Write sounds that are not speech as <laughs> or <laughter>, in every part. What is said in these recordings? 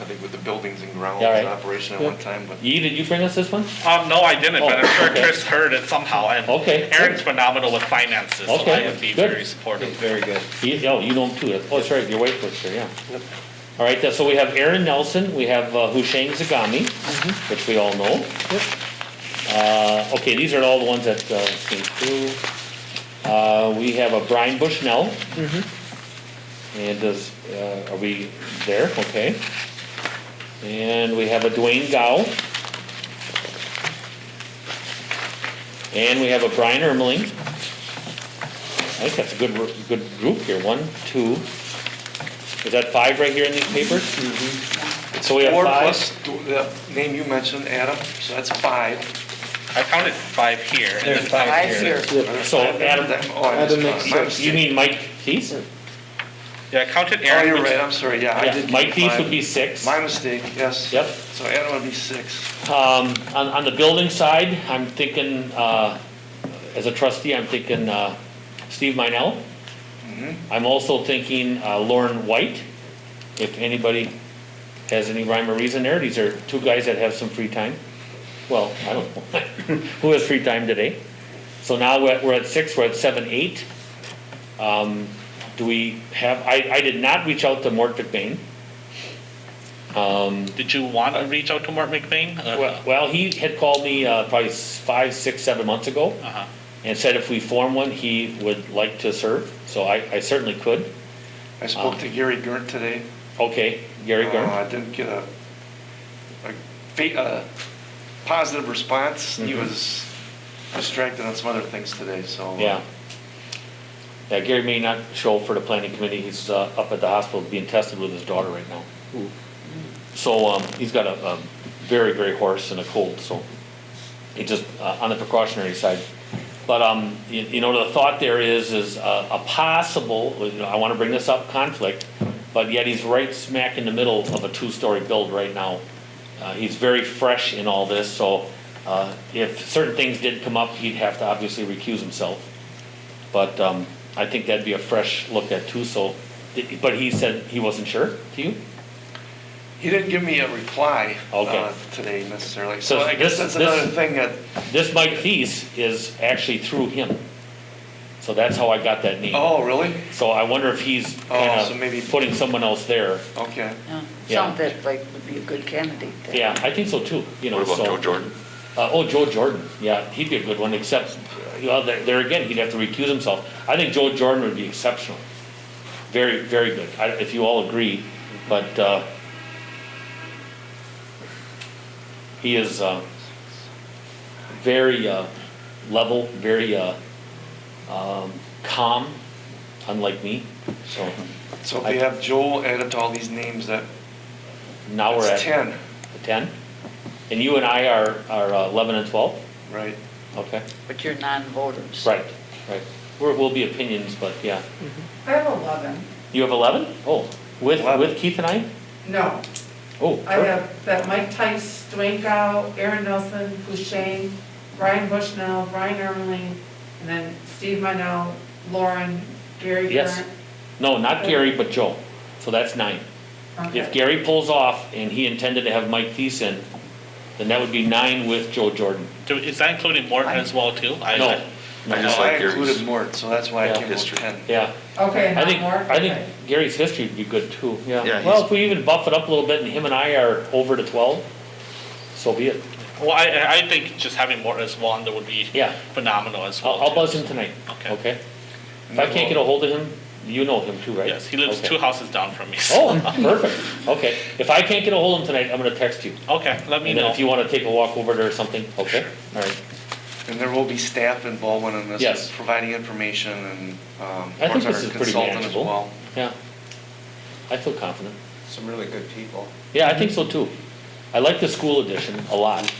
I think with the buildings and grounds All right. in operation at one time, but Yee, did you bring us this one? Um, no, I didn't, but I'm Oh, sure okay. Chris heard it somehow, and Okay. Aaron's phenomenal with finances, so I Okay, would be good. very supportive. Very good. Yee, oh, you know him too. Oh, that's right, your wife was here, yeah. All right, uh, so we have Aaron Nelson, we have uh, Hushang Zagami, which we all know. Uh, okay, these are all the ones that, uh, came through. Uh, we have a Brian Bushnell. And does, uh, are we there? Okay. And we have a Dwayne Gow. And we have a Brian Ermeling. I think that's a good, r- good group here, one, two. Is that five right here in these papers? So we have four five. plus th- the name you mentioned, Adam, so that's five. I counted five here, and then There's five five here. here. Are there So, five there? Adam- That- oh, I missed Adam makes one. My You mistake. mean Mike Thies? Yeah, I counted Oh, Aaron, you're right, which, I'm sorry, yeah, I Yeah, did. Mike count Thies would five. be six. My mistake, yes. Yep. So Adam would be six. Um, on, on the building side, I'm thinking, uh, as a trustee, I'm thinking, uh, Steve Minell. Mm-hmm. I'm also thinking, uh, Lauren White, if anybody has any rhyme or reason there, these are two guys that have some free time. Well, I don't know, <laughs> who has free time today? So now we're, at- we're at six, we're at seven, eight. Um, do we have, I, I did not reach out to Mort McBain. Um, did you want to reach out to Mort McBain? Uh, well, well, he had called me uh, probably s- five, six, seven months ago Uh-huh. and said if we form one, he would like to serve. So I, I certainly could. I spoke to Gary Gernt today. Okay, Gary Uh, Gurn. I didn't get a, a, fa- a positive response. Mm-hmm. He was distracted on some other things today, so. uh, Yeah. Yeah, Gary may not show for the planning committee. He's uh, up at the hospital being tested with his daughter right now. So um, he's got a, a very, very hoarse and a cold, so he just, uh, on the precautionary side. But, um, you, you know, the thought there is, is uh, a possible, you know, I want to bring this up, conflict, but yet he's right smack in the middle of a two-story build right now. Uh, he's very fresh in all this, so uh, if certain things did come up, he'd have to obviously recuse himself. But um, I think that'd be a fresh look at too. So, but he said he wasn't sure to you. He didn't give me a reply Okay. uh, today necessarily. So So I guess this- that's another this- thing that, This Mike Thies is actually through him. So that's how I got that name. oh, really? So I wonder if he's Oh, kind of so maybe- putting someone else there. Okay. Yeah. Sounds that like would be a good candidate then. Yeah, I think so too. You know. What so, about Joe Jordan? Uh, oh, Joe Jordan. Yeah, he'd be a good one. Except, well, there, there again, he'd have to recuse himself. I think Joe Jordan would be exceptional. Very, very good. I, if you all agree, but uh, he is uh, very uh, level, very uh, um, calm, unlike me. So So if we have Joel added to all these names, that, now we're that's at ten, ten, and you and I are are uh, eleven and twelve. right? Okay. But you're non-voters. Right, right. We're, we'll be opinions, but yeah. I have 11. You have eleven? Oh, with, 11. with Keith and I? No, Oh, I have that Mike Tice, Dwayne Gow, Aaron Nelson, Boucher, Brian Bushnell, Brian Ermeling, and then Steve Minell, Lauren, Gary Yes. Grant. no, not Gary, but Joe. So that's nine. If Okay. Gary pulls off and he intended to have Mike Thiessen, then that would be nine with Joe Jordan. do- Is that including Mort as well, too? I- No, I no, just So I like Gary's- included Mort, so that's why I Yeah. came up with History. ten. yeah. Okay, I not think, more? I think Okay. Gary's history would be good too, Yeah, yeah. Well, he's- if we even buff it up a little bit and him and I are over to twelve, so be it. Well, I- I, I think just having Mort as one, that would be Yeah. phenomenal as well. I'll, I'll too. buzz him tonight, Okay. okay? If I can't get a hold of him, you know him too, right? Yes, he lives Okay. two houses down from me. so- Oh, perfect. Okay. If I can't get a hold of him tonight, I'm gonna text you. <laughs> Okay, let me And then know. if you wanna take a walk over there or something, okay? All right. And there will be staff involvement in this, Yes. with providing information and, um, I think Mark's our this is pretty consultant as manageable. well. Yeah. I feel confident. Some really good people. Yeah, I think so too. I like the school edition a lot.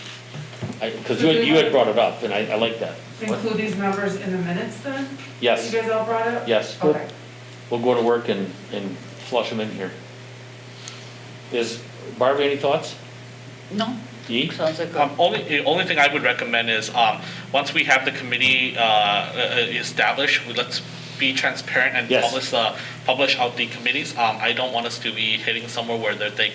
I, cause you had, you had brought it up and I, I like that. Include these numbers in the minutes then? that Yes, You guys all brought up? yes. Okay. We'll go to work and, and flush them in here. Is, Barbie, any thoughts? No, Yee? sounds like Um, a only, the only thing I would recommend is, um, once we have the committee, uh, uh, established, we- let's be transparent and Yes. publish, uh, publish out the committees. Um, I don't want us to be hitting somewhere where they're thinking